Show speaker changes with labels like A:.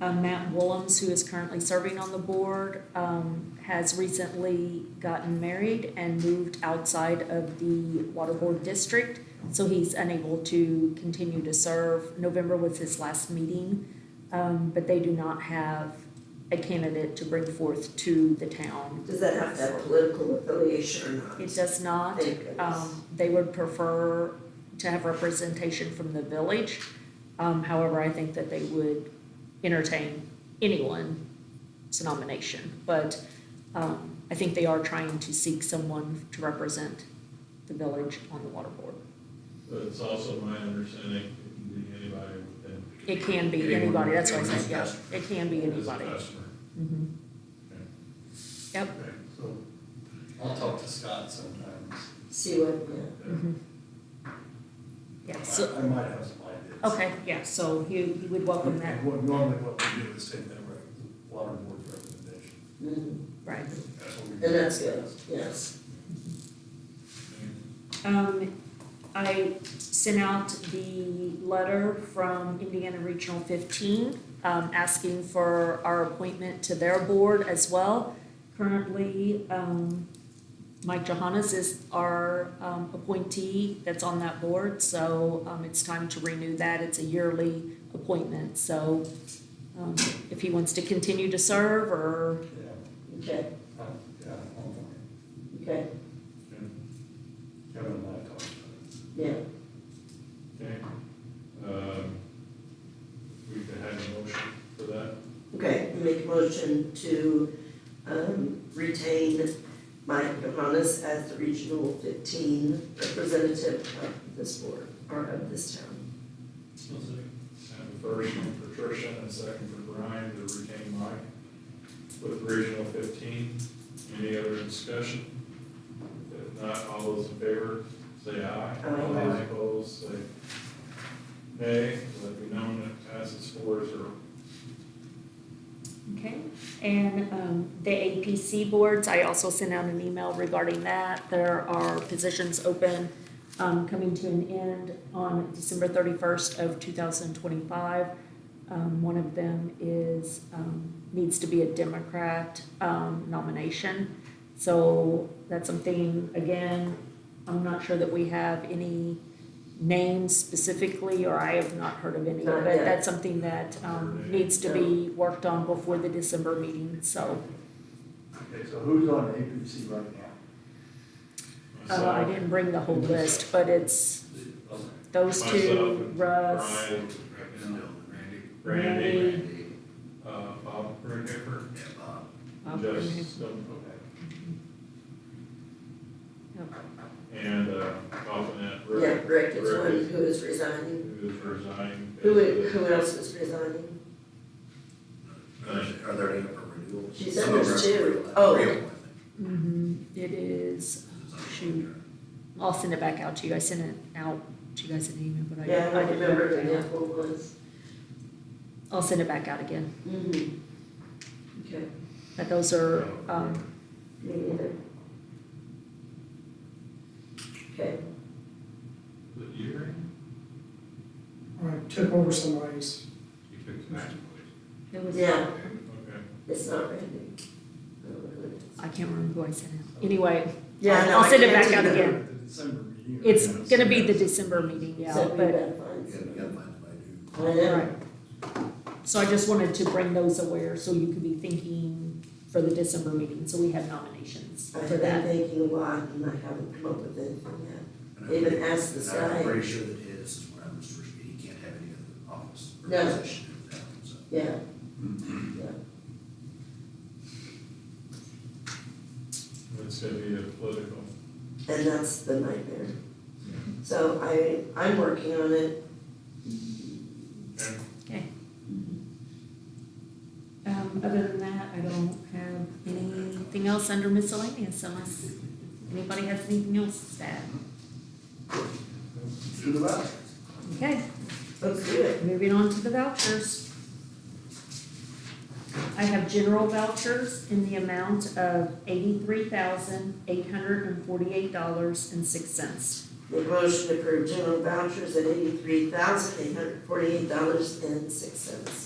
A: Um, Matt Willems, who is currently serving on the board, um, has recently gotten married and moved outside of the water board district, so he's unable to continue to serve. November was his last meeting, um, but they do not have a candidate to bring forth to the town.
B: Does that have to have political affiliation or not?
A: It does not.
B: Thank goodness.
A: Um, they would prefer to have representation from the village. Um, however, I think that they would entertain anyone's nomination. But, um, I think they are trying to seek someone to represent the village on the water board.
C: But it's also my understanding it can be anybody within.
A: It can be
C: Anyone-
A: anybody, that's what I
C: anyone
A: said, yeah,
C: who's
A: it can be
C: As a
A: anybody.
C: customer.
A: Mhm. Yep.
C: Okay, so,
D: I'll talk to Scott sometimes.
B: See what, yeah.
A: Mhm. Yeah, so,
D: I I might have some ideas.
A: okay, yeah, so he, he would welcome that,
D: And what, normally what we do is take that rec, water board recommendation.
B: Mm,
A: right.
D: That's what we
B: And
D: do.
B: that's good, yes.
A: Um, I sent out the letter from Indiana Regional fifteen, um, asking for our appointment to their board as well. Currently, um, Mike Johannes is our, um, appointee that's on that board, so, um, it's time to renew that. It's a yearly appointment, so, um, if he wants to continue to serve or,
D: Yeah,
B: Okay,
D: I'm- yeah, I'm fine.
B: okay,
D: Kevin and I talked about
B: yeah.
C: okay. Um, We could have a motion for that.
B: Okay, make a motion to um, retain Mike Johannes as the Regional 15 representative of this board, or of this town.
C: Have a first from Patricia and a second from Brian to retain Mike with Regional fifteen. Any other discussion? If not, all those in favor, say aye.
B: Aye.
C: All those opposed, say nay. Let it be known that passes four zero.
A: Okay, and um, the APC boards, I also sent out an email regarding that. There are positions open um, coming to an end on December 31st of 2025. Um, One of them is, um, needs to be a Democrat um, nomination. So that's something, again, I'm not sure that we have any names specifically, or I have not heard of any.
B: Not
A: But
B: yet.
A: that's something that um, needs to be worked on before the December meeting, so.
D: it. Okay, so who's on APC right now?
A: Uh, I didn't bring the whole list, but it's those
C: Myself
A: two,
C: and
A: Russ,
C: Brian, Randy,
A: Randy,
C: uh, Bob Brunhipper,
A: Bob
C: Justin,
A: Graham.
C: Stone-
A: Yep.
C: and, uh, Bob
B: Yeah,
C: Rick,
B: Rick is
C: Rick
B: one
C: is-
B: who is resigning.
C: who is resigning.
B: Who, i- who else is resigning?
E: Are there any up for renewal?
B: She said there's two. Oh.
A: Mhm. It is, shoot, I'll send it back out to you, I sent it out to you guys in email, but I
B: Yeah, I
A: I
B: don't
A: didn't
B: remember
A: remember
B: who
A: that.
B: that one was.
A: I'll send it back out again,
B: Mhm. Okay,
A: but those are, um,
B: me neither. Okay,
C: The year,
F: I uh, took over somebody's,
C: you picked that place.
A: it was,
B: yeah,
C: Okay.
B: it's not Randy. I don't know who it is.
A: I can't remember who I sent out. Anyway,
B: Yeah, I know,
A: I'll
B: I
A: send it
B: can't
A: back out
B: remember.
A: again.
D: The December meeting.
A: It's gonna be the December meeting, yeah,
B: So we
A: but,
B: gotta find
E: You
B: someone.
E: gotta find somebody who-
B: I know.
A: right. So I just wanted to bring those aware, so you could be thinking for the December meeting, so we have nominations
B: I
A: for
B: have been
A: that.
B: thinking a lot and I haven't come up with anything yet.
E: and I'm
B: They even
E: pretty-
B: asked this
E: and
B: guy.
E: I'm pretty sure that his is where I'm his first meeting, he can't have any other office or
B: No.
E: position in town, so.
B: Yeah,
C: It's gonna be a uh, political.
B: and that's the nightmare. So I, I'm working on it.
C: Okay.
A: Um, other than that, I don't have anything else under miscellaneous unless anybody has anything else to add.
D: Do the last.
A: Okay,
B: Let's do it.
A: moving on to the vouchers. I have general vouchers in the amount of eighty-three thousand, eight hundred and forty-eight dollars and six cents.
B: The motion to approve general vouchers at eighty-three thousand eight hundred forty-eight dollars and six cents.